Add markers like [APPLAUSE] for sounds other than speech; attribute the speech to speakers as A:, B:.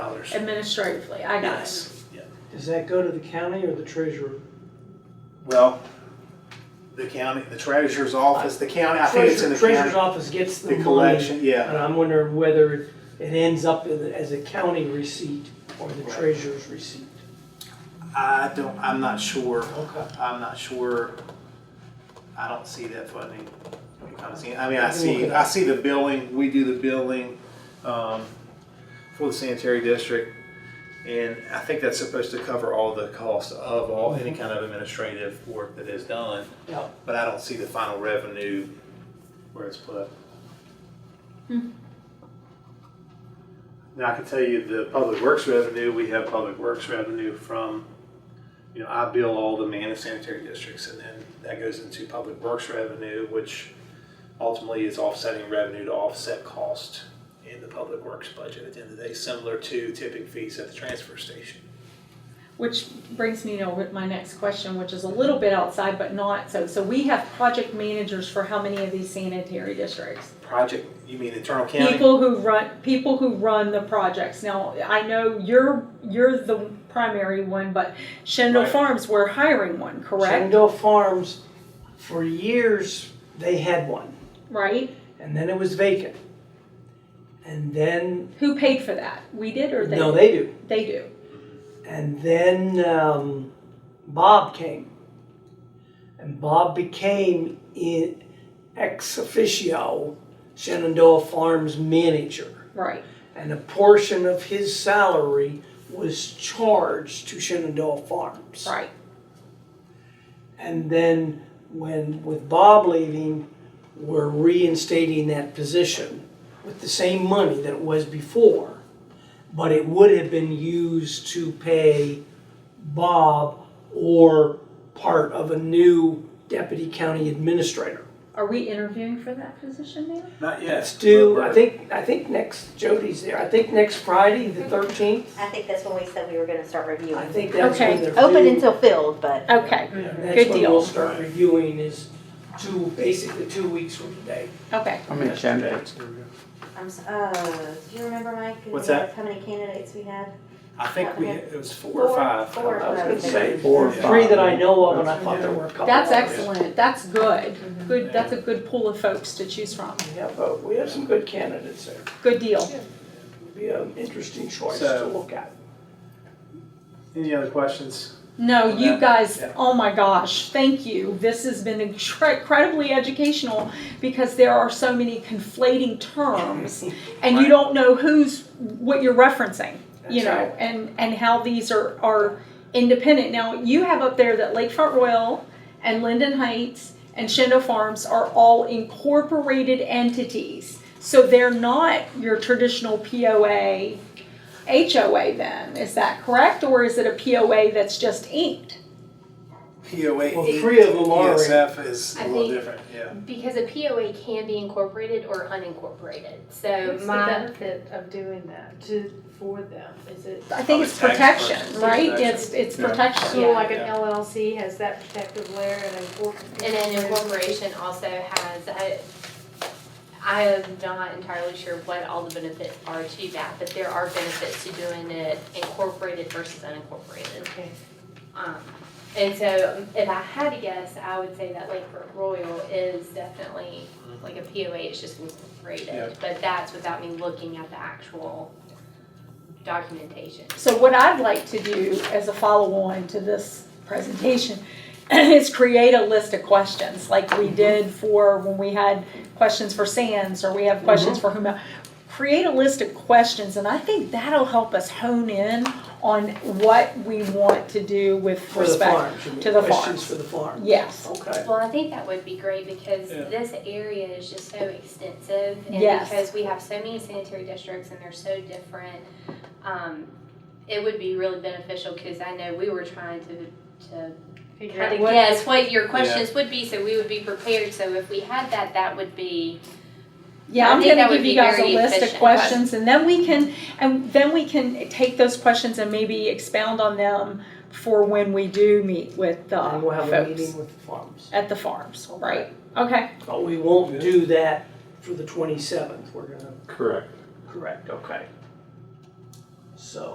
A: dollars.
B: administratively, I got it.
A: Yes,
C: Does that go to the county or the treasurer?
A: well, the county, the treasurer's office, the county, I think it's in
C: Treasurer,
A: the
C: treasurer's
A: county.
C: office gets the
A: The
C: money.
A: collection, yeah,
C: And I'm wondering whether it ends up in- as a county receipt or the
A: Right.
C: treasurer's receipt.
A: I don't, I'm not sure,
C: Okay.
A: I'm not sure, I don't see that funding. when it comes in. I mean, I
C: Let me look
A: see,
C: it
A: I
C: up.
A: see the billing, we do the billing, um, for the sanitary district. And I think that's supposed to cover all the costs of all, any kind of administrative work that is done.
C: Yeah.
A: But I don't see the final revenue where it's put.
C: Hmm.
A: Now, I can tell you the public works revenue, we have public works revenue from, you know, I bill all the man and sanitary districts and then that goes into public works revenue, which ultimately is offsetting revenue to offset cost in the public works budget at the end of the day, similar to tipping fees at the transfer station.
B: Which brings me to my next question, which is a little bit outside, but not so. So we have project managers for how many of these sanitary districts?
A: Project, you mean internal county?
B: People who run, people who run the projects. Now, I know you're, you're the primary one, but Shendon
A: Right.
B: Farms, we're hiring one, correct?
C: Shenandoah Farms, for years, they had one,
B: Right?
C: and then it was vacant. And then,
B: Who paid for that? We did or they?
C: no, they do.
B: They do.
C: And then um, Bob came. And Bob became in ex officio Shenandoah Farms manager.
B: Right.
C: And a portion of his salary was charged to Shenandoah Farms.
B: Right.
C: And then when, with Bob leaving, we're reinstating that position with the same money that it was before. But it would have been used to pay Bob or part of a new deputy county administrator.
B: Are we interviewing for that position now?
A: Not yet.
C: It's due,
A: We're-
C: I think, I think next, Jody's there, I think next Friday, the thirteenth,
D: I think that's when we said we were gonna start
C: I
D: reviewing.
C: think that's when
B: Okay.
C: they're due.
D: Open until filled, but
B: Okay.
C: And
B: Good
C: That's when
B: deal.
C: we'll start reviewing is two, basically two weeks from today.
B: Okay.
E: How many candidates?
D: I'm, s- uh, do you remember, Mike?
A: What's that?
D: How many candidates we had?
A: I think we, it was four or
D: Four-
A: five.
D: four or
A: I was
D: five,
A: gonna
D: I think.
A: say
E: Four or
A: Yeah.
C: Three that I
E: five.
C: know of, and I thought there were a couple.
B: That's
C: others.
B: excellent. That's good. Good,
A: Yeah.
B: that's a good pool of folks to choose from.
C: Yeah, but we have some good candidates there.
B: Good deal.
C: It'd Be an interesting choice to
A: So-
C: look at.
A: Any other questions?
B: No,
A: Well,
B: you
A: that-
B: guys,
A: yeah.
B: oh my gosh, thank you. This has been incre- incredibly educational because there are so many conflating terms and you
A: Right.
B: don't know who's what you're referencing, you
C: That's
B: know,
C: right.
B: and and how these are are independent. Now, you have up there that Lakefront Royal and Linden Heights and Shendo Farms are all incorporated entities. So they're not your traditional POA HOA then, is that correct? Or is it a POA that's just inked?
A: POA
C: Well,
A: eight,
C: three of them are-
A: PSF is a
F: I
A: little
F: think-
A: different, yeah.
F: Because a POA can be incorporated or unincorporated, so
G: What's the
F: my,
G: benefit of doing that to, for them? Is it,
B: I think it's
A: Probably tax
B: protection,
A: protection.
B: right?
A: Protection.
B: It's, it's
E: Yeah.
B: protection.
G: so
F: Yeah.
G: like an LLC has that protective layer and an incorporated?
F: and an incorporation also has, I, I am not entirely sure what all the benefits are to that, but there are benefits to doing it incorporated versus unincorporated.
G: Okay.
F: Um, and so if I had to guess, I would say that Lakeford Royal is definitely like a POA, it's just
A: Yeah.
F: incorporated, but that's without me looking at the actual documentation.
B: So what I'd like to do as a follow-on to this presentation [CLEARS THROAT] is create a list of questions, like
C: Mm-hmm.
B: we did for when we had questions for Sands, or we
C: Mm-hmm.
B: have questions for whomever. Create a list of questions, and I think that'll help us hone in on what we want to do with
C: For the
B: respect.
C: farms, you mean,
B: to the
C: questions
B: farms.
C: for the farm.
B: Yes,
C: Okay.
F: Well, I think that would be great because
A: Yeah.
F: this area is just so extensive and
B: Yes.
F: because we have so many sanitary districts and they're so different. Um, it would be really beneficial because I know we were trying to, to
G: Figure
F: kind
G: out
F: of
G: what,
F: guess what your questions would be, so we would be prepared. So if we had that, that would be,
B: yeah,
F: I
B: I'm
F: think
B: gonna
F: that would
B: give you
F: be
B: guys a
F: very
B: list of
F: efficient.
B: questions, and then we can, and then we can take those questions and maybe expound on them for when we do meet with the
C: And we'll have a
B: folks
C: meeting with the farms.
B: at the farms, right? Okay.
C: But we won't do that for the twenty-seventh, we're gonna,
E: Correct.
C: correct, okay. So.